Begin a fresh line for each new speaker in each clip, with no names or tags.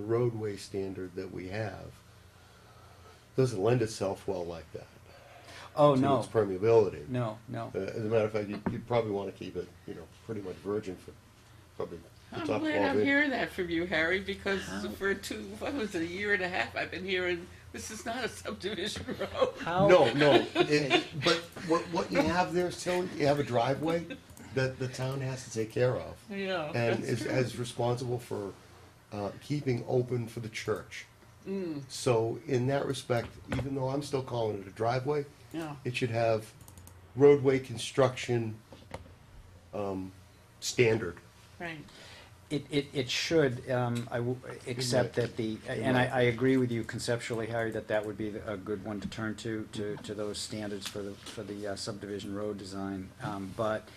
the roadway standard that we have doesn't lend itself well like that.
Oh,
to
no,
Its permeability.
no, no.
Uh, as a matter of fact, you'd, you'd probably want to keep it, you know, pretty much virgin for probably the
I'm
top
glad
twelve
I'm
inches.
hearing that from you, Harry, because for two, what was it, a year and a half, I've been hearing this is not a subdivision road.
How?
No, no. It, but what, what you have there, Tilly, you have a driveway that the town has to take care of.
Yeah,
And
that's
is,
true.
is responsible for uh, keeping open for the church.
Mm.
So, in that respect, even though I'm still calling it a driveway,
Yeah.
it should have roadway construction um, standard.
Right.
It, it, it should, um, I w- except that the, and I, I agree with you conceptually, Harry, that that would be a good one to turn to, to, to those standards for the, for the uh, subdivision road design. Um, but,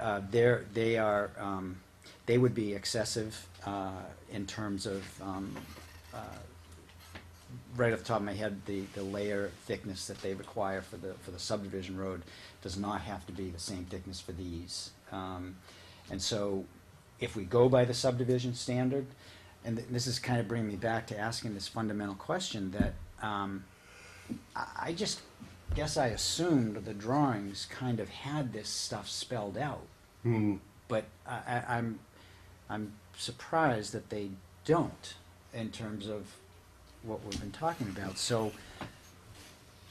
uh, they're, they are, um, they would be excessive, uh, in terms of, um, uh, right off the top of my head, the, the layer thickness that they require for the, for the subdivision road does not have to be the same thickness for these. Um, and so if we go by the subdivision standard, and th- this is kind of bringing me back to asking this fundamental question that, um, I, I just guess I assumed the drawings kind of had this stuff spelled out.
Hmm.
But I, I, I'm, I'm surprised that they don't in terms of what we've been talking about. So,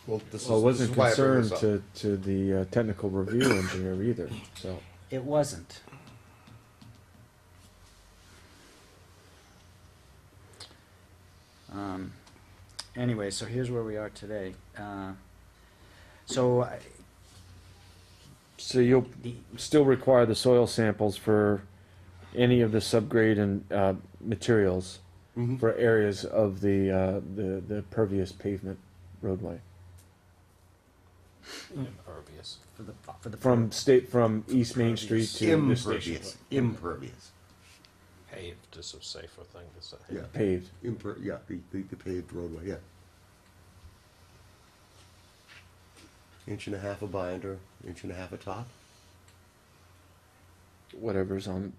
Well, this
Well, it
is, this
wasn't
is why I bring
concerned
this up.
to, to the uh, technical review engineer either, so.
It wasn't. Um, anyway, so here's where we are today. Uh, so, I-
So you'll
the,
still require the soil samples for any of the subgrade and, uh, materials
Mhm.
for areas of the, uh, the, the pervious pavement roadway.
impervious.
for the, for the.
From state, from East Main Street to the station.
Impervious, impervious.
Paved is a safer thing to say.
Yeah.
Paved.
Imper, yeah, the, the, the paved roadway, yeah. Inch and a half of binder, inch and a half of top.
whatever's on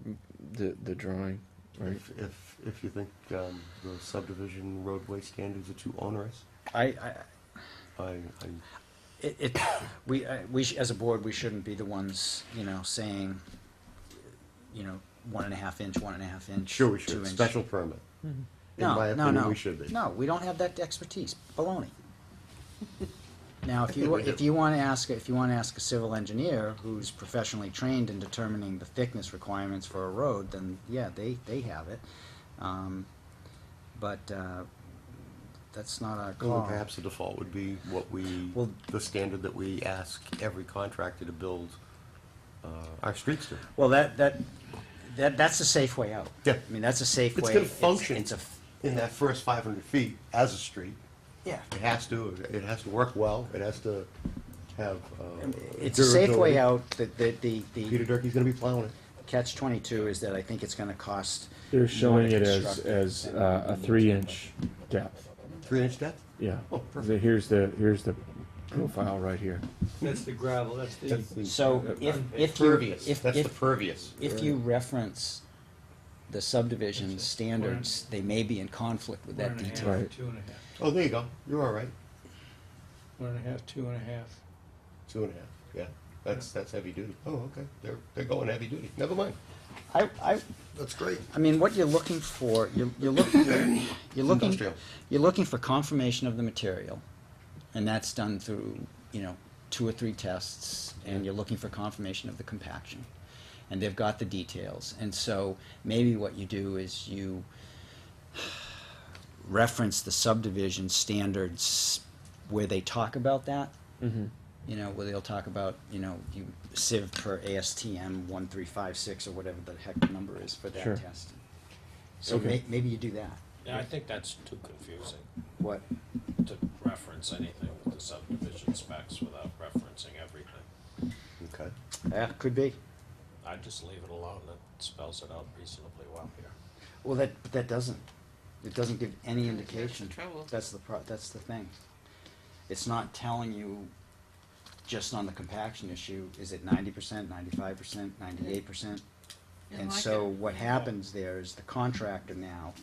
the the drawing, right?
If, if, if you think, um, the subdivision roadway standards are too onerous,
I, I,
I, I,
it, it, we, I- we, sh- as a board, we shouldn't be the ones, you know, saying, you know, one and a half inch, one and a half inch.
sure we
two
should,
inch. Mm-hmm.
special permit. In
No,
my
no,
opinion,
no.
we should be.
No, we don't have that expertise. Baloney. Now, if you, if you want to ask, if you want to ask a civil engineer who's professionally trained in determining the thickness requirements for a road, then yeah, they, they have it. Um, But, uh, that's not our
Well,
call.
perhaps the default would be what we,
Well-
the standard that we ask every contractor to build, uh, our streets to.
Well, that, that, that, that's a safe way out.
Yeah.
I mean, that's a safe way.
It's gonna function
It's a, f-
in that first five hundred feet as a street.
yeah.
It has to, it has to work well, it has to have, uh.
It's a safe way
durability.
out. The, the, the-
Peter
the
Durkee's gonna be plowing it.
catch twenty-two is that I think it's gonna cost.
They're
more
showing
to
it as
construct
as
than-
uh, a
than-
three inch depth.
Three inch depth?
Yeah.
Oh,
The- Here's the here's the profile right here.
That's the gravel, that's the,
So if, if you,
Pervious,
if,
that's the
if,
pervious.
if you reference the subdivision standards, they may be in conflict with
one
that
and a half, two
detail.
Right.
and a half,
Oh, there you go, you're all right,
one and a half, two and a half.
two and a half, yeah, that's, that's heavy duty. Oh, okay, they're, they're going heavy duty, never mind,
I, I,
that's great.
I mean, what you're looking for, you're, you're looking, you're looking,
Industrial.
you're looking for confirmation of the material, and that's done through, you know, two or three tests, and you're looking for confirmation of the compaction. And they've got the details, and so maybe what you do is you reference the subdivision standards where they talk about that.
Mm-hmm.
You know, where they'll talk about, you know, you sieve per ASTM one three five six or whatever the heck the number is for
Sure.
that test. So
Okay.
may- maybe you do that.
Yeah, I think that's too confusing
What?
to reference anything with the subdivision specs without referencing everything.
Okay.
Yeah, could be.
I just leave it alone. It spells it out reasonably well here.
Well, that, but that doesn't, it doesn't give any
That's the
indication.
trouble.
That's the pro, that's the thing. It's not telling you, just on the compaction issue, is it ninety percent, ninety-five percent, ninety-eight percent?
Yeah,
And
I
so
can-
what happens there is the contractor now